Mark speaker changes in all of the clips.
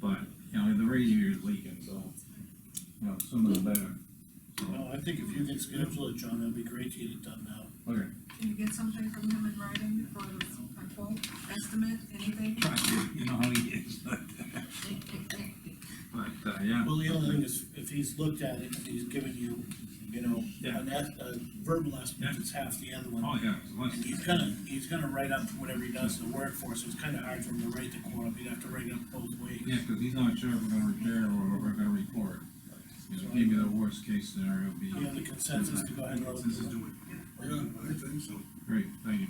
Speaker 1: but, you know, the radiator's leaking, so, you know, some of the better. So,
Speaker 2: No, I think if you can schedule it, John, that'd be great to get it done now.
Speaker 1: okay.
Speaker 3: Can you get something from him in writing for a quote, estimate, anything?
Speaker 1: Try to, You know how he is, but, but, uh, yeah.
Speaker 2: Well, the only thing is, if he's looked at it, and he's given you, you know,
Speaker 1: Yeah.
Speaker 2: an, es- a verbal estimate, it's half the other one.
Speaker 1: Oh, yeah, it's
Speaker 2: And
Speaker 1: less,
Speaker 2: he's gonna, he's gonna write up whatever he does in the workforce, it's kinda hard for him to write the quote up, he'd have to write it up both ways.
Speaker 1: yeah, cause he's not sure if we're gonna repair or if we're gonna report. You know, Maybe the worst case scenario would be.
Speaker 2: Do you have the consensus to go ahead and roll?
Speaker 1: This is doing,
Speaker 4: Yeah, I think so.
Speaker 1: great, thank you,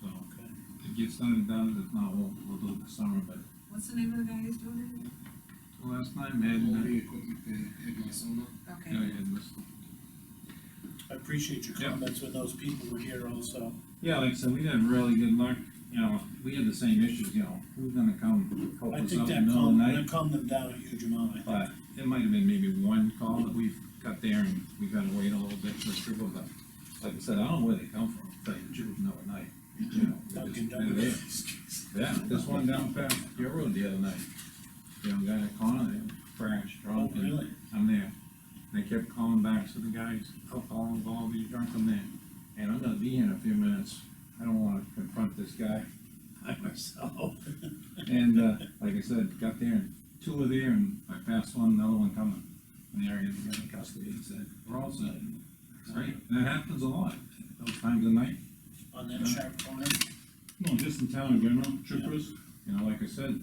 Speaker 1: so,
Speaker 2: Okay.
Speaker 1: it gets done and done, if not, we'll, we'll do it this summer, but
Speaker 3: What's the name of the guy who's doing
Speaker 1: last time, Ed,
Speaker 3: it?
Speaker 1: yeah,
Speaker 3: Okay.
Speaker 1: Ed was
Speaker 2: I appreciate your
Speaker 1: Yeah.
Speaker 2: comments when those people were here also.
Speaker 1: Yeah, like I said, we had really good luck, you know, we had the same issues, you know, who's gonna come help
Speaker 2: I
Speaker 1: us
Speaker 2: think
Speaker 1: out
Speaker 2: that
Speaker 1: in the middle of
Speaker 2: calmed,
Speaker 1: the night?
Speaker 2: that calmed them down a huge amount, I think.
Speaker 1: But it might have been maybe one call that we've got there and we gotta wait a little bit for approval, but like I said, I don't know where they come from, but you would know at night, you know. they're
Speaker 2: Dunkin'
Speaker 1: just- they're there. Yeah, this one down past your road the other night, young guy at Connor, they crashed,
Speaker 2: Oh,
Speaker 1: drunk, and
Speaker 2: really?
Speaker 1: I'm there. They kept calling back, so the guys, alcohol involved, you drunk, I'm there. And I'm gonna be here in a few minutes, I don't wanna confront this guy by myself. And, uh, like I said, got there, and two were there, and I passed one, another one coming. And they're in, they're in custody, and said, we're all set. Right, and that happens a lot, those times of night.
Speaker 2: On that sharp corner,
Speaker 1: No, just in town in general, trippers, you know, like I said,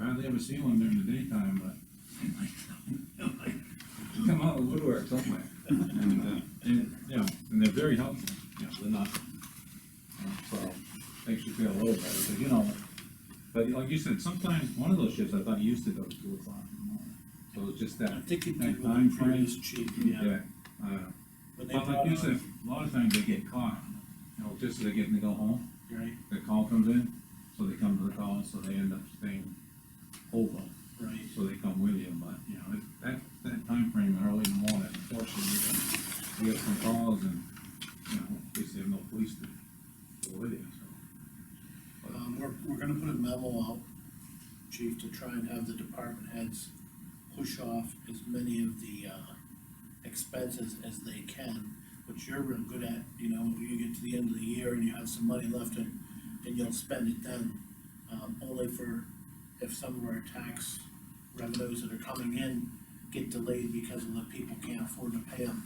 Speaker 1: I hardly ever see one during the daytime, but. they Come out of the woodwork somewhere. And, uh, and, you know, and they're very helpful, you know, they're not, you know, so, makes you feel a little better, but you know. But like you said, sometimes, one of those shifts, I thought you used to go to two o'clock in the morning, so it's just
Speaker 2: I
Speaker 1: that,
Speaker 2: think it
Speaker 1: That
Speaker 2: did with
Speaker 1: time
Speaker 2: the
Speaker 1: frame.
Speaker 2: previous chief, yeah.
Speaker 1: yeah, uh,
Speaker 2: When they
Speaker 1: but like
Speaker 2: brought
Speaker 1: you said,
Speaker 2: on,
Speaker 1: a lot of times they get caught, you know, just as they're getting to go home
Speaker 2: right,
Speaker 1: the call comes in, so they come to the call, so they end up staying over,
Speaker 2: right.
Speaker 1: so they come with you, but, you know, it- that, that timeframe, early in the morning, unfortunately, we get some calls and, you know, obviously have no police to go with you, so.
Speaker 2: Um, we're, we're gonna put a memo out, chief, to try and have the department heads push off as many of the, uh, expenses as they can, which you're real good at, you know, when you get to the end of the year and you have some money left and, and you'll spend it then. Um, only for if some of our tax revenues that are coming in get delayed because of the people can't afford to pay them.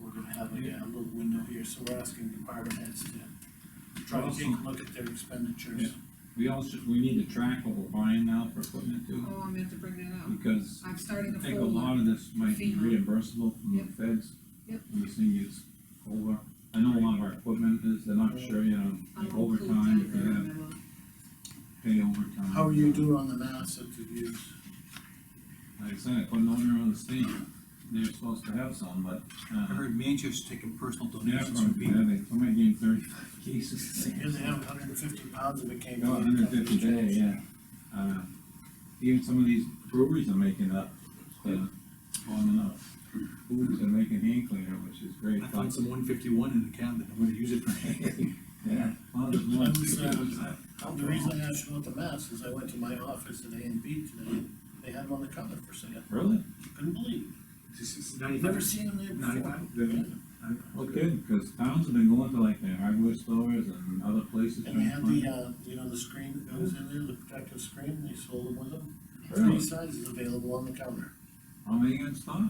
Speaker 2: We're gonna have a, a little window here, so we're asking department heads to try to take a look at their expenditures.
Speaker 1: We also, we need to track what we're buying now for equipment too,
Speaker 3: Oh, I meant to bring that up.
Speaker 1: because
Speaker 3: I've started
Speaker 1: I
Speaker 3: a
Speaker 1: think a
Speaker 3: folder.
Speaker 1: lot of this might be
Speaker 3: FEMA.
Speaker 1: reimbursable from
Speaker 3: Yep.
Speaker 1: the feds.
Speaker 3: Yep.
Speaker 1: When this thing gets over, I know a lot of our equipment is, they're not sure, you know,
Speaker 3: I will include
Speaker 1: overtime,
Speaker 3: that
Speaker 1: if
Speaker 3: in
Speaker 1: they
Speaker 3: the
Speaker 1: have
Speaker 3: memo.
Speaker 1: pay overtime.
Speaker 2: How are you doing on the mass that you use?
Speaker 1: Like I said, I put an order on the state, they're supposed to have some, but,
Speaker 4: I
Speaker 1: uh,
Speaker 4: heard Manchester's taking personal
Speaker 1: yeah,
Speaker 4: donations from
Speaker 1: probably, yeah,
Speaker 4: people.
Speaker 1: they, somebody gave thirty-five cases.
Speaker 2: Here they have hundred and fifty pounds of it came.
Speaker 1: About
Speaker 2: in.
Speaker 1: hundred fifty day, yeah. Uh, even some of these breweries are making up, uh, on enough. Foods are making hand cleaner, which is great.
Speaker 4: I found some one fifty-one in the cabinet, I'm gonna use it for anything.
Speaker 1: Yeah. found there's one.
Speaker 2: I was, uh, The reason I asked you about the mass is I went to my office at A and B today, they had one on the counter for sale,
Speaker 1: Really?
Speaker 2: couldn't believe,
Speaker 4: This is
Speaker 2: it.
Speaker 4: ninety-five.
Speaker 2: never seen them there before.
Speaker 4: Ninety-five.
Speaker 1: Well, good, cause towns have been going to like their hardware stores and other places.
Speaker 2: And they had
Speaker 1: trying to
Speaker 2: the, uh, you know, the screen that goes in there, the protective screen, they sold them with them,
Speaker 1: find-
Speaker 2: three
Speaker 1: Really?
Speaker 2: sizes available on the counter.
Speaker 1: How many you gonna stop?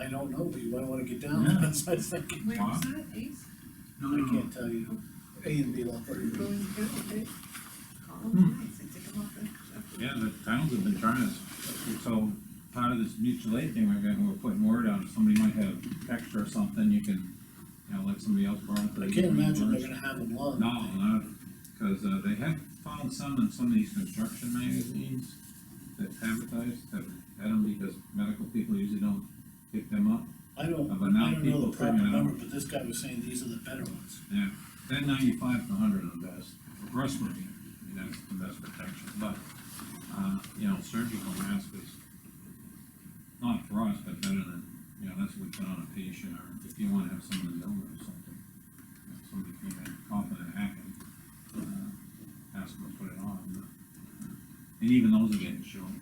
Speaker 2: I don't know, but you might wanna get down,
Speaker 1: Yeah.
Speaker 2: that's what I was thinking,
Speaker 3: Where was that, Ace?
Speaker 4: No,
Speaker 2: I
Speaker 4: no, no,
Speaker 2: can't tell you, A and B lot.
Speaker 3: Going to, okay. Call
Speaker 1: Hmm.
Speaker 3: him, Ace, and take him off the.
Speaker 1: Yeah, the towns have been trying to, so part of this mutual aid thing we're getting, we're putting word out, if somebody might have extra or something, you can, you know, let somebody else borrow it.
Speaker 2: I can't imagine they're gonna have them long.
Speaker 1: No, no, cause, uh, they have found some in some of these construction magazines that advertise, that, that them because medical people usually don't pick them up.
Speaker 2: I don't,
Speaker 1: But now
Speaker 2: I don't know
Speaker 1: people
Speaker 2: the proper
Speaker 1: figuring it out.
Speaker 2: number, but this guy was saying these are the better ones.
Speaker 1: Yeah, that ninety-five to hundred are the best, breast marine, I mean, that's the best protection, but, uh, you know, surgical mask is not for us, but better than, you know, that's what we put on a patient, or if you wanna have someone in the elbow or something. you know, Somebody came in coughing and hacking, uh, ask them to put it on, but- and even those are getting shorter.